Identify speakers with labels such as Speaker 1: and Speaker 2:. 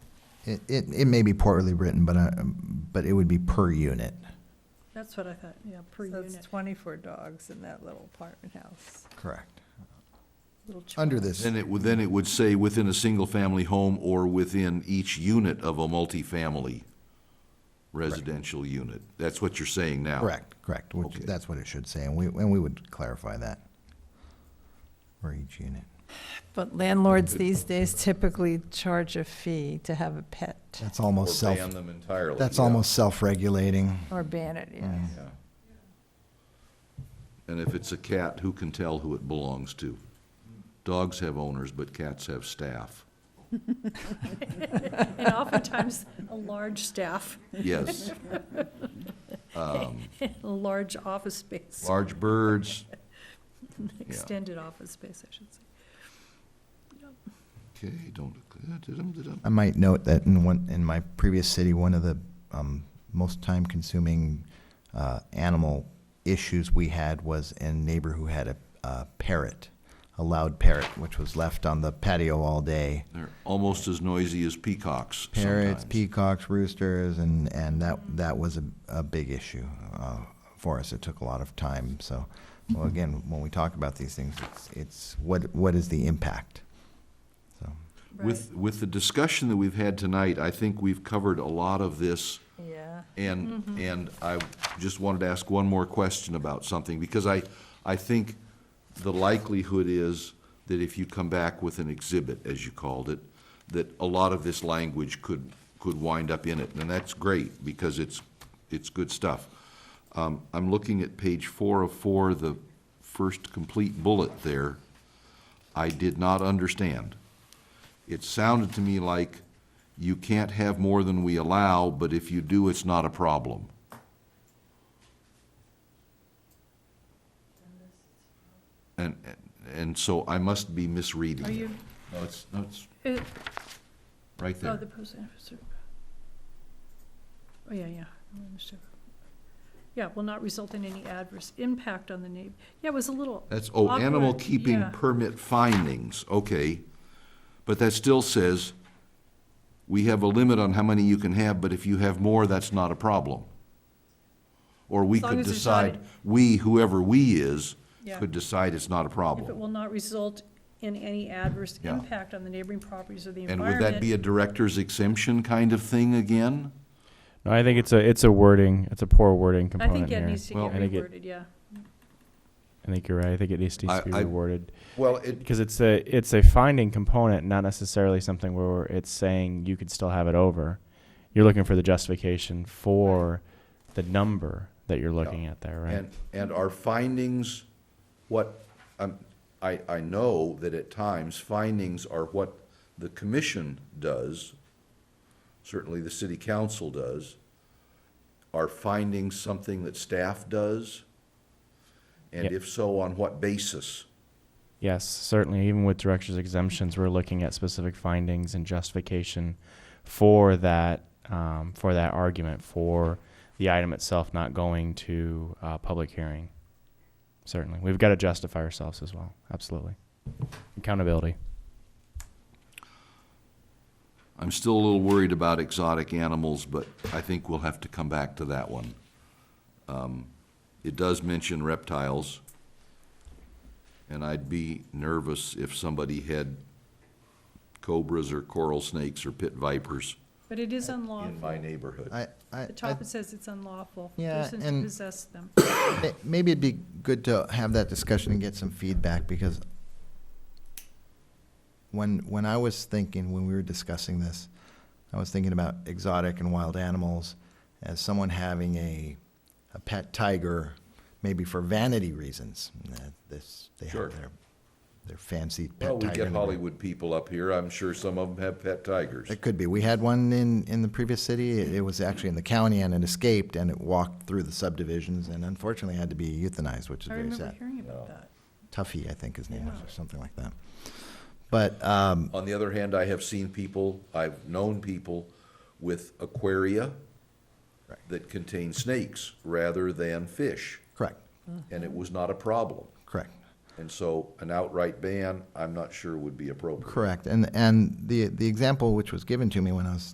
Speaker 1: It, it, it may be poorly written, but, uh, but it would be per unit.
Speaker 2: That's what I thought, yeah, per
Speaker 3: So it's
Speaker 2: unit.
Speaker 3: twenty-four dogs in that little apartment house.
Speaker 1: Correct.
Speaker 2: little ch-
Speaker 1: Under this,
Speaker 4: Then it would, then it would say within a single-family home or within each unit of a multifamily residential unit. That's what you're saying now.
Speaker 1: correct, correct, which,
Speaker 4: Okay.
Speaker 1: that's what it should say, and we, and we would clarify that for each unit.
Speaker 3: But landlords these days typically charge a fee to have a pet
Speaker 1: That's
Speaker 4: Or
Speaker 1: almost self,
Speaker 4: ban them entirely.
Speaker 1: that's
Speaker 4: yeah.
Speaker 1: almost self-regulating.
Speaker 3: or ban it, yeah.
Speaker 4: Yeah. And if it's a cat, who can tell who it belongs to? Dogs have owners, but cats have staff.
Speaker 2: And oftentimes, a large staff,
Speaker 4: Yes. Um,
Speaker 2: a large office space,
Speaker 4: Large birds,
Speaker 2: extended office space, I should say.
Speaker 4: okay, don't,
Speaker 1: I might note that in one, in my previous city, one of the um, most time-consuming uh, animal issues we had was a neighbor who had a, a parrot, a loud parrot, which was left on the patio all day.
Speaker 4: they're almost as noisy as peacocks
Speaker 1: Parrots,
Speaker 4: sometimes.
Speaker 1: peacocks, roosters, and, and that, that was a, a big issue uh, for us. It took a lot of time. So, well, again, when we talk about these things, it's, it's what, what is the impact? So.
Speaker 4: With, with the discussion that we've had tonight, I think we've covered a lot of this,
Speaker 3: Yeah.
Speaker 4: and, and I just wanted to ask one more question about something, because I, I think the likelihood is that if you come back with an exhibit, as you called it, that a lot of this language could, could wind up in it, and that's great, because it's, it's good stuff. Um, I'm looking at page four of four, the first complete bullet there. I did not understand it sounded to me like you can't have more than we allow, but if you do, it's not a problem. And, and so I must be misreading.
Speaker 2: Are
Speaker 4: it.
Speaker 2: you,
Speaker 4: No, it's, no, it's
Speaker 2: it-
Speaker 4: right
Speaker 2: oh,
Speaker 4: there.
Speaker 2: the post office. Oh, yeah, yeah. I understood. Yeah, will not result in any adverse impact on the neighbor. Yeah, it was a little,
Speaker 4: That's, oh, animal
Speaker 2: Awkward,
Speaker 4: keeping
Speaker 2: yeah.
Speaker 4: permit findings, okay. But that still says, we have a limit on how many you can have, but if you have more, that's not a problem. Or we
Speaker 2: As long
Speaker 4: could
Speaker 2: as it's not
Speaker 4: decide, we, whoever we is,
Speaker 2: Yeah.
Speaker 4: could decide it's not a
Speaker 2: if it
Speaker 4: problem.
Speaker 2: will not result in any adverse
Speaker 4: Yeah.
Speaker 2: impact on the neighboring properties or the
Speaker 4: And would
Speaker 2: environment.
Speaker 4: that be a director's exemption kind of thing again?
Speaker 5: No, I think it's a it's a wording. It's a poor wording
Speaker 2: I
Speaker 5: component
Speaker 2: think that
Speaker 5: here.
Speaker 2: needs to
Speaker 4: Well-
Speaker 2: get
Speaker 5: I think it-
Speaker 2: reworded, yeah.
Speaker 5: I think you're right. I think it needs to
Speaker 4: I-
Speaker 5: be
Speaker 4: I-
Speaker 5: rewarded
Speaker 4: Well, it.
Speaker 5: because it's a it's a finding component, not necessarily something where it's saying you could still have it over. You're looking for the justification for the number that you're looking at there, right?
Speaker 4: And, and are findings what, um, I, I know that at times findings are what the commission does, certainly the city council does. Are findings something that staff does? And
Speaker 5: Yep.
Speaker 4: if so, on what basis?
Speaker 5: Yes, certainly. Even with director's exemptions, we're looking at specific findings and justification for that um, for that argument for the item itself not going to uh, public hearing. Certainly, we've got to justify ourselves as well. Absolutely, accountability.
Speaker 4: I'm still a little worried about exotic animals, but I think we'll have to come back to that one. Um, It does mention reptiles, and I'd be nervous if somebody had cobras or coral snakes or pit vipers
Speaker 2: But it is
Speaker 4: in
Speaker 2: unlawful.
Speaker 4: my neighborhood.
Speaker 1: I, I,
Speaker 2: The
Speaker 1: I
Speaker 2: top it says it's unlawful.
Speaker 1: Yeah,
Speaker 2: Persons
Speaker 1: and-
Speaker 2: who possess them.
Speaker 1: May- Maybe it'd be good to have that discussion and get some feedback, because when, when I was thinking, when we were discussing this, I was thinking about exotic and wild animals as someone having a, a pet tiger, maybe for vanity reasons. Uh, This, they
Speaker 4: Sure.
Speaker 1: have their, their fancy pet tiger.
Speaker 4: Well, we get
Speaker 1: in the room.
Speaker 4: Hollywood people up here, I'm sure some of them have pet tigers.
Speaker 1: It could be. We had one in, in the previous city. It it was actually in the county and it escaped and it walked through the subdivisions and unfortunately had to be euthanized, which is
Speaker 2: I
Speaker 1: very
Speaker 2: remember
Speaker 1: sad.
Speaker 2: hearing about
Speaker 4: Yeah.
Speaker 2: that.
Speaker 1: Tuffy, I think his name was, or something like that. But, um,
Speaker 4: On the other hand, I have seen people, I've known people with aquaria
Speaker 1: Right.
Speaker 4: that contain snakes rather than fish,
Speaker 1: correct,
Speaker 4: and it was not a problem.
Speaker 1: correct,
Speaker 4: And so an outright ban, I'm not sure would be appropriate.
Speaker 1: correct. And, and the, the example which was given to me when I was